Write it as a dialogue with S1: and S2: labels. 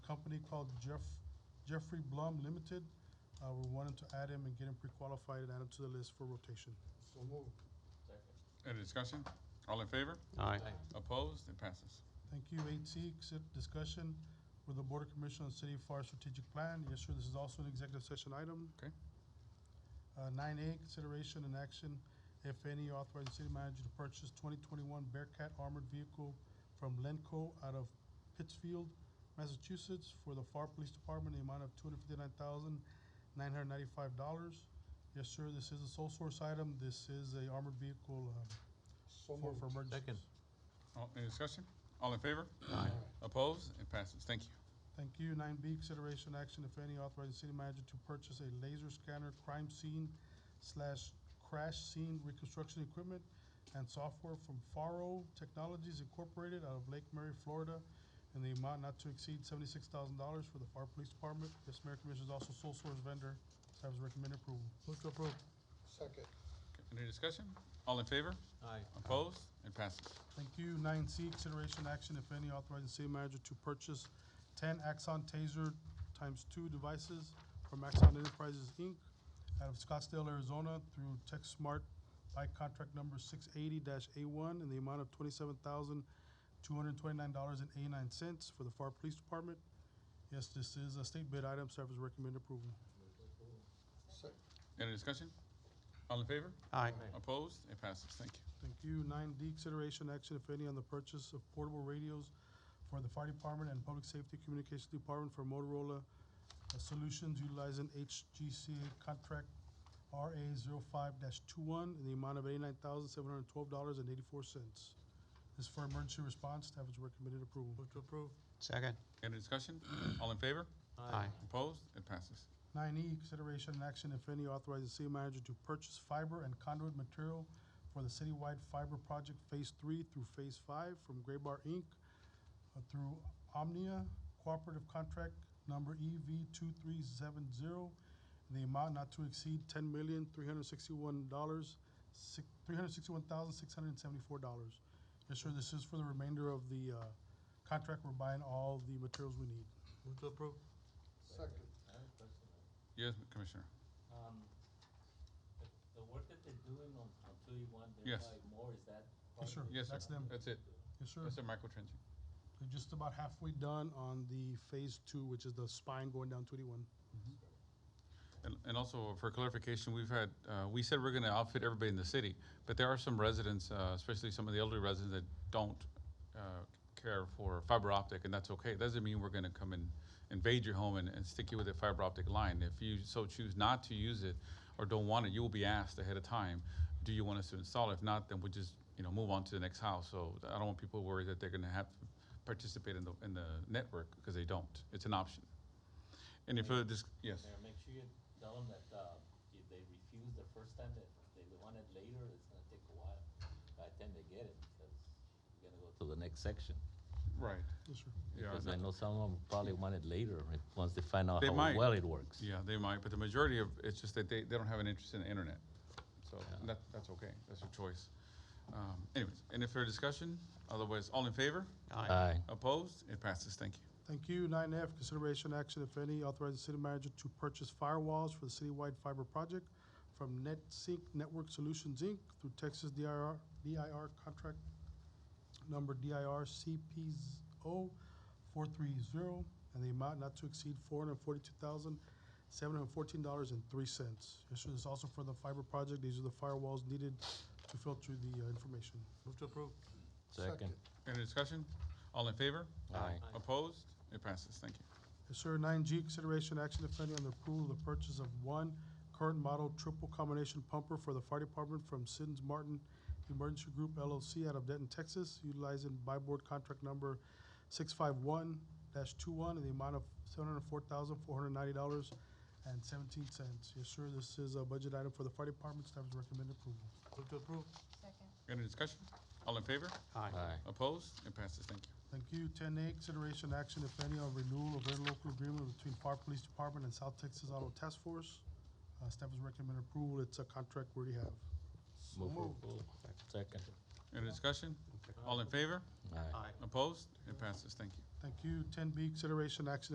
S1: company called Jeff, Jeffrey Blum Limited. Uh, we're wanting to add him and get him pre-qualified and add him to the list for rotation.
S2: So move.
S3: Any discussion? All in favor?
S4: Aye.
S3: Opposed? It passes.
S1: Thank you. Eight C, accept discussion with the Board of Commissioners on City of Far Strategic Plan. Yes, sir, this is also an executive session item.
S3: Okay.
S1: Uh, nine A, consideration and action, if any, authorizing city manager to purchase twenty twenty-one Bearcat armored vehicle from Lenco out of Pittsfield, Massachusetts, for the FAR Police Department, the amount of two hundred fifty-nine thousand, nine hundred ninety-five dollars. Yes, sir, this is a sole source item. This is a armored vehicle, um,
S2: So
S1: for, for
S2: move.
S1: emergencies.
S4: Second.
S3: All- Any discussion? All in favor?
S4: Aye.
S3: Opposed? It passes. Thank you.
S1: Thank you. Nine B, consideration action, if any, authorizing city manager to purchase a laser scanner crime scene slash crash scene reconstruction equipment and software from Faro Technologies Incorporated out of Lake Mary, Florida, in the amount not to exceed seventy-six thousand dollars for the Faro Police Department. This mayor commission is also sole source vendor. Staff is recommending approval.
S4: Move to approve.
S2: Second.
S3: Okay, Any discussion? All in favor?
S4: Aye.
S3: Opposed? It passes.
S1: Thank you. Nine C, consideration action, if any, authorizing city manager to purchase ten Axon Taser times two devices from Axon Enterprises, Inc. out of Scottsdale, Arizona through Tech Smart by contract number six eighty A one in the amount of twenty-seven thousand, two hundred and twenty-nine dollars and eighty-nine cents for the FAR Police Department. Yes, this is a state bid item. Staff is recommend approval.
S2: Second.
S3: Any discussion? All in favor?
S4: Aye.
S3: Opposed? It passes. Thank you.
S1: Thank you. Nine D, consideration action, if any, on the purchase of portable radios for the fire department and public safety communications department for Motorola uh, Solutions utilizing HGCA contract RA 5 two-one in the amount of eighty-nine thousand, seven hundred and twelve dollars and eighty-four cents. This is for emergency response. Staff is recommended approval.
S4: Move to approve. Second.
S3: Any discussion? All in favor?
S4: Aye.
S3: Opposed? It passes.
S1: Nine E, consideration and action, if any, authorizing city manager to purchase fiber and conduit material for the citywide fiber project Phase Three through Phase Five from Graybar Inc. uh, through Omnia Cooperative Contract Number EV two three seven zero in the amount not to exceed ten million, three hundred sixty-one dollars, three hundred sixty-one thousand, six hundred and seventy-four dollars. Yes, sir, this is for the remainder of the, uh, contract. We're buying all the materials we need.
S4: Move to approve.
S2: Second.
S5: I have a question.
S3: Yes, Commissioner.
S5: Um, the, the work that they're doing on, on two E one, they're
S3: Yes.
S5: probably more, is that? part
S1: Yes,
S5: of
S1: sir.
S5: it?
S3: Yes, sir.
S1: That's them.
S3: That's it.
S1: Yes, sir.
S3: That's it, Michael Trenching.
S1: We're just about halfway done on the phase two, which is the spine going down to eighty-one.
S3: And, and also for clarification, we've had, uh, we said we're gonna outfit everybody in the city, but there are some residents, uh, especially some of the elderly residents that don't, uh, care for fiber optic, and that's okay. Doesn't mean we're gonna come and invade your home and, and stick you with a fiber optic line. If you so choose not to use it or don't want it, you will be asked ahead of time, do you want us to install it? If not, then we'll just, you know, move on to the next house. So I don't want people worried that they're gonna have to participate in the, in the network, because they don't. It's an option. Any further dis- yes?
S5: Mayor, make sure you tell them that, uh, if they refuse the first time, that they want it later, it's gonna take a while. By the time they get it, because you're gonna go to the next section.
S3: Right.
S1: Yes, sir.
S3: Yeah,
S5: Because
S3: that-
S5: I know some of them probably want it later, right, once they find out
S3: They
S5: how
S3: might.
S5: well it works.
S3: Yeah, they might, but the majority of, it's just that they, they don't have an interest in the internet. So
S5: Yeah.
S3: that, that's okay, that's your choice. Um, anyways, any further discussion? Otherwise, all in favor?
S5: Aye.
S3: Opposed? It passes, thank you.
S1: Thank you. Nine F, consideration action, if any, authorizing city manager to purchase firewalls for the citywide fiber project from NetSync Network Solutions, Inc. through Texas DIR, DIR contract number DIR CPO four three zero, and the amount not to exceed four hundred forty-two thousand, seven hundred fourteen dollars and three cents. This is also for the fiber project. These are the firewalls needed to filter the uh, information.
S4: Move to approve.
S5: Second.
S3: Any discussion? All in favor?
S5: Aye.
S3: Opposed? It passes, thank you.
S1: Yes, sir. Nine G, consideration action if any on the approval of the purchase of one current model triple combination pumper for the fire department from Siddons Martin Emergency Group LLC out of Denton, Texas, utilizing buy board contract number six five one dash two one in the amount of seven hundred four thousand, four hundred ninety dollars and seventeen cents. Yes, sir. This is a budget item for the fire department. Staff is recommending approval.
S4: Move to approve.
S3: Any discussion? All in favor?
S5: Aye.
S3: Opposed? It passes, thank you.
S1: Thank you. Ten A, consideration action, if any, on renewal of interlocal agreement between Park Police Department and South Texas Auto Task Force. Uh, staff is recommending approval. It's a contract we already have.
S2: So
S5: Move for
S2: move.
S5: approval. Second.
S3: Any discussion? All in favor?
S5: Aye.
S3: Opposed? It passes, thank you.
S1: Thank you. Ten B, consideration action,